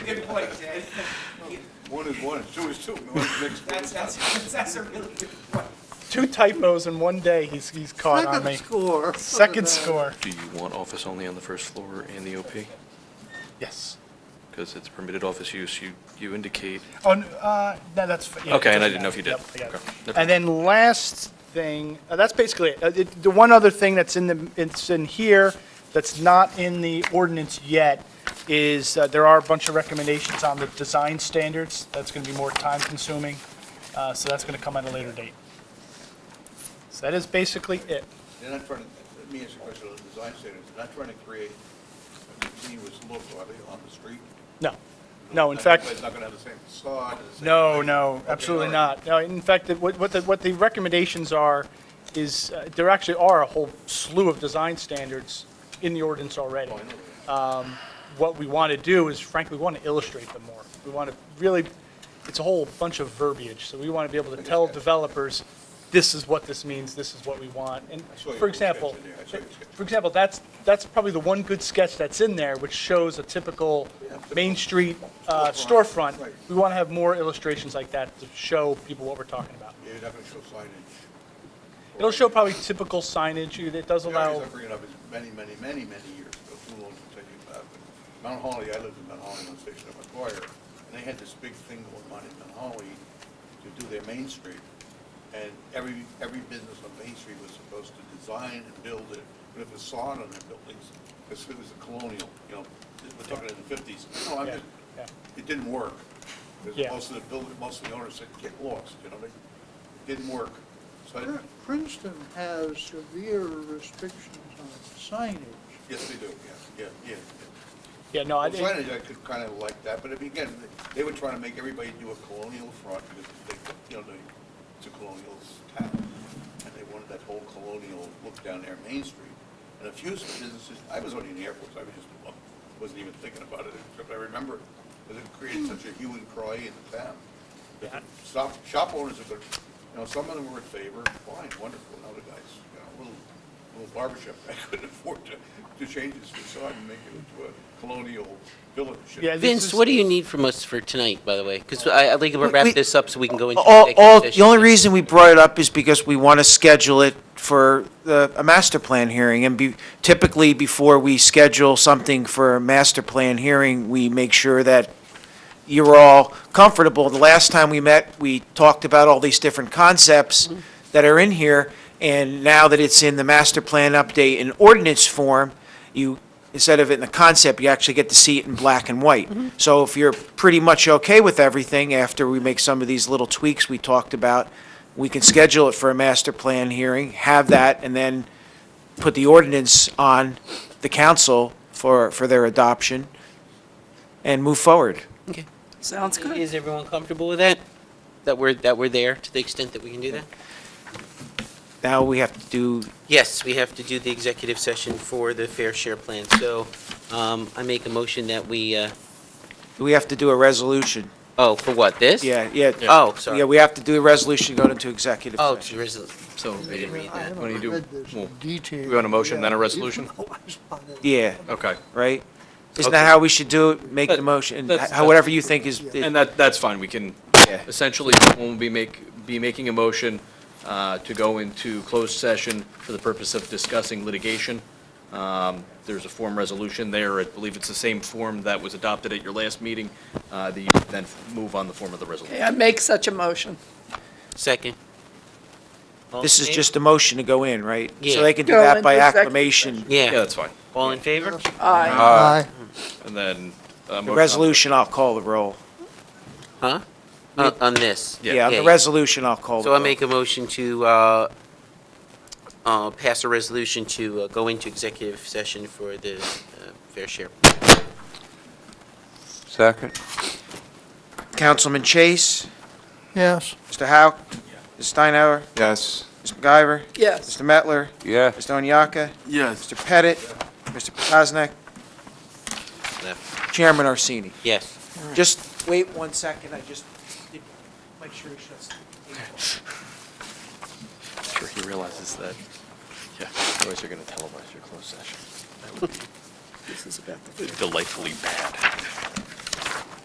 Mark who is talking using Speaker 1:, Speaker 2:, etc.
Speaker 1: Good point, Ted.
Speaker 2: One is one, two is two. No, it's mixed.
Speaker 1: That's, that's, that's a really good point.
Speaker 3: Two typos in one day he's, he's caught on me.
Speaker 4: Second score.
Speaker 3: Second score,
Speaker 5: Do you want office only on the first floor and the OP?
Speaker 3: yes.
Speaker 5: Because it's permitted office use, you, you indicate,
Speaker 3: Oh, n- uh, no, that's. yeah,
Speaker 5: Okay, and I
Speaker 3: it
Speaker 5: didn't know if you did.
Speaker 3: doesn't matter. Yep, I got it.
Speaker 5: Okay, that's fine.
Speaker 3: And then last thing, uh, that's basically it. Uh, it. The one other thing that's in the, it's in here, that's not in the ordinance yet, is uh, there are a bunch of recommendations on the design standards. That's going to be more time consuming, uh, so that's going to come at a later date. So that is basically it.
Speaker 2: They're not trying to, let me ask you a question on the design standards. They're not trying to create a continuous look, are they, on the street?
Speaker 3: No, no, in
Speaker 2: Not-
Speaker 3: fact.
Speaker 2: It's not going to have the same facade. the same
Speaker 3: No,
Speaker 2: thing.
Speaker 3: no,
Speaker 2: Okay,
Speaker 3: absolutely
Speaker 2: all right.
Speaker 3: not. No, in fact, it- what, what the, what the recommendations are is, uh, there actually are a whole slew of design standards in the ordinance
Speaker 2: Oh,
Speaker 3: already. Um, What we want to do is frankly, we want to illustrate them more. We want to really, it's a whole bunch of verbiage, so we want to be able to tell developers, this is what this means, this is what we want. And
Speaker 2: I saw your
Speaker 3: for
Speaker 2: sketch
Speaker 3: example,
Speaker 2: in there. I saw your sketch.
Speaker 3: for example, that's, that's probably the one good sketch that's in there, which shows a typical Main Street uh,
Speaker 2: Storefront.
Speaker 3: storefront.
Speaker 2: Right.
Speaker 3: We want to have more illustrations like that to show people what we're talking about.
Speaker 2: Yeah, You're not going to show signage.
Speaker 3: It'll show probably typical signage, You- it does
Speaker 2: The only
Speaker 3: allow,
Speaker 2: reason I bring it up is many, many, many, many years ago, too long to tell you about, but Mount Holly, I lived in Mount Holly on Station of McGuire, and they had this big thing going on in Mount Holly to do their Main Street. And every, every business on Main Street was supposed to design and build it, put a facade on their buildings, because it was a colonial, you know, we're talking in the fifties. No, I'm
Speaker 3: Yeah,
Speaker 2: just,
Speaker 3: yeah.
Speaker 2: it didn't work. Because
Speaker 3: Yeah.
Speaker 2: most of the building, most of the owners said, get lost, you know, they, it didn't work. So, I-
Speaker 4: Prin- Uh, Princeton has severe restrictions on signage.
Speaker 2: yes, they do, yeah, yeah, yeah, yeah.
Speaker 3: yeah, no, I-
Speaker 2: Well, signage, I could kind of like that, but I mean, again, they- they were trying to make everybody do a colonial front because they, you know, they, it's a colonial town. And they wanted that whole colonial look down there, Main Street. And a few businesses, I was only in the Air Force, I was just, well, wasn't even thinking about it, except I remember it. Because it created such a hue and cry in the town.
Speaker 3: Yeah.
Speaker 2: Shop, shop owners are, gonna- you know, some of them were in favor, fine, wonderful, and other guys, you know, little, little barbershop, I couldn't afford to, to change its facade and make it into a colonial village.
Speaker 3: yeah. this
Speaker 6: Vince,
Speaker 3: is-
Speaker 6: what do you need from us for tonight, by the way? Because I, I think we'll
Speaker 7: We-
Speaker 6: wrap
Speaker 7: we-
Speaker 6: this up so we can go into
Speaker 7: All, all,
Speaker 6: executive
Speaker 7: the only
Speaker 6: session.
Speaker 7: reason we brought it up is because we want to schedule it for the, a master plan hearing. And be, typically, before we schedule something for a master plan hearing, we make sure that you're all comfortable. The last time we met, we talked about all these different concepts that are in here, and now that it's in the master plan update in ordinance form, you, instead of it in the concept, you actually get to see it in black and white. So if you're pretty much okay with everything, after we make some of these little tweaks we talked about, we can schedule it for a master plan hearing, have that, and then put the ordinance on the council for, for their adoption, and move forward.
Speaker 6: Okay.
Speaker 8: Sounds good.
Speaker 6: Is everyone comfortable with that? That we're, that we're there to the extent that we can do that?
Speaker 7: Now we have to do,
Speaker 6: Yes, we have to do the executive session for the fair share plan. So um, I make a motion that we, uh,
Speaker 7: do we have to do a resolution.
Speaker 6: oh, for what, this?
Speaker 7: Yeah, yeah.
Speaker 6: Oh,
Speaker 7: Yeah,
Speaker 6: sorry.
Speaker 7: we have to do a resolution, go into executive
Speaker 6: Oh,
Speaker 7: session.
Speaker 6: to resol- so we didn't read
Speaker 4: I
Speaker 6: that.
Speaker 4: haven't
Speaker 5: What do you do?
Speaker 4: read this in
Speaker 5: Well,
Speaker 4: detail.
Speaker 5: we want a motion,
Speaker 4: Yeah,
Speaker 5: then a
Speaker 4: you
Speaker 5: resolution?
Speaker 4: know I spotted it.
Speaker 7: Yeah,
Speaker 5: okay.
Speaker 7: right? Isn't
Speaker 5: Okay.
Speaker 7: that how we should do it? Make the
Speaker 5: But
Speaker 7: motion,
Speaker 5: that's-
Speaker 7: how- whatever you think is,
Speaker 5: And that, that's fine, we can,
Speaker 7: Yeah.
Speaker 5: essentially, we'll be make, be making a motion uh, to go into closed session for the purpose of discussing litigation. Um, There's a form resolution there, I believe it's the same form that was adopted at your last meeting, uh, that you then move on the form of the resolution.
Speaker 8: Okay, I make such a motion.
Speaker 6: Second. All in
Speaker 7: this is
Speaker 6: favor?
Speaker 7: just a motion to go in, right?
Speaker 6: Yeah.
Speaker 7: So they can do
Speaker 8: Go
Speaker 7: that
Speaker 8: into
Speaker 7: by
Speaker 8: executive
Speaker 7: acclamation.
Speaker 5: Yeah,
Speaker 6: Yeah.
Speaker 5: that's fine.
Speaker 6: All in favor?
Speaker 8: Aye.
Speaker 4: Aye.
Speaker 5: And then. uh, motion
Speaker 7: The
Speaker 5: on-
Speaker 7: resolution, I'll call the roll.
Speaker 6: Huh? On on this?
Speaker 5: Yeah.
Speaker 7: Yeah, on the
Speaker 6: yeah.
Speaker 7: resolution, I'll call the
Speaker 6: So I
Speaker 7: roll.
Speaker 6: make a motion to uh, uh, pass a resolution to uh, go into executive session for the uh, fair share.
Speaker 9: Second.
Speaker 7: Councilman Chase,
Speaker 4: Yes.
Speaker 7: Mr. Hauk, Ms. Steinhauer,
Speaker 9: Yes.
Speaker 7: Ms. MacGyver,
Speaker 8: Yes.
Speaker 7: Mr. Mettler,
Speaker 9: Yeah.
Speaker 7: Mr. Onyaka,
Speaker 9: Yes.
Speaker 7: Mr. Pettit, Mr. Praznik,
Speaker 6: No.
Speaker 7: Chairman Arsini.
Speaker 6: Yes.
Speaker 7: Just wait one second, I just, did- make sure he shuts.
Speaker 5: I'm Sure, he realizes that, yeah, otherwise you're going to televise your closed session. That would be
Speaker 8: This is about the.
Speaker 5: Delightfully bad.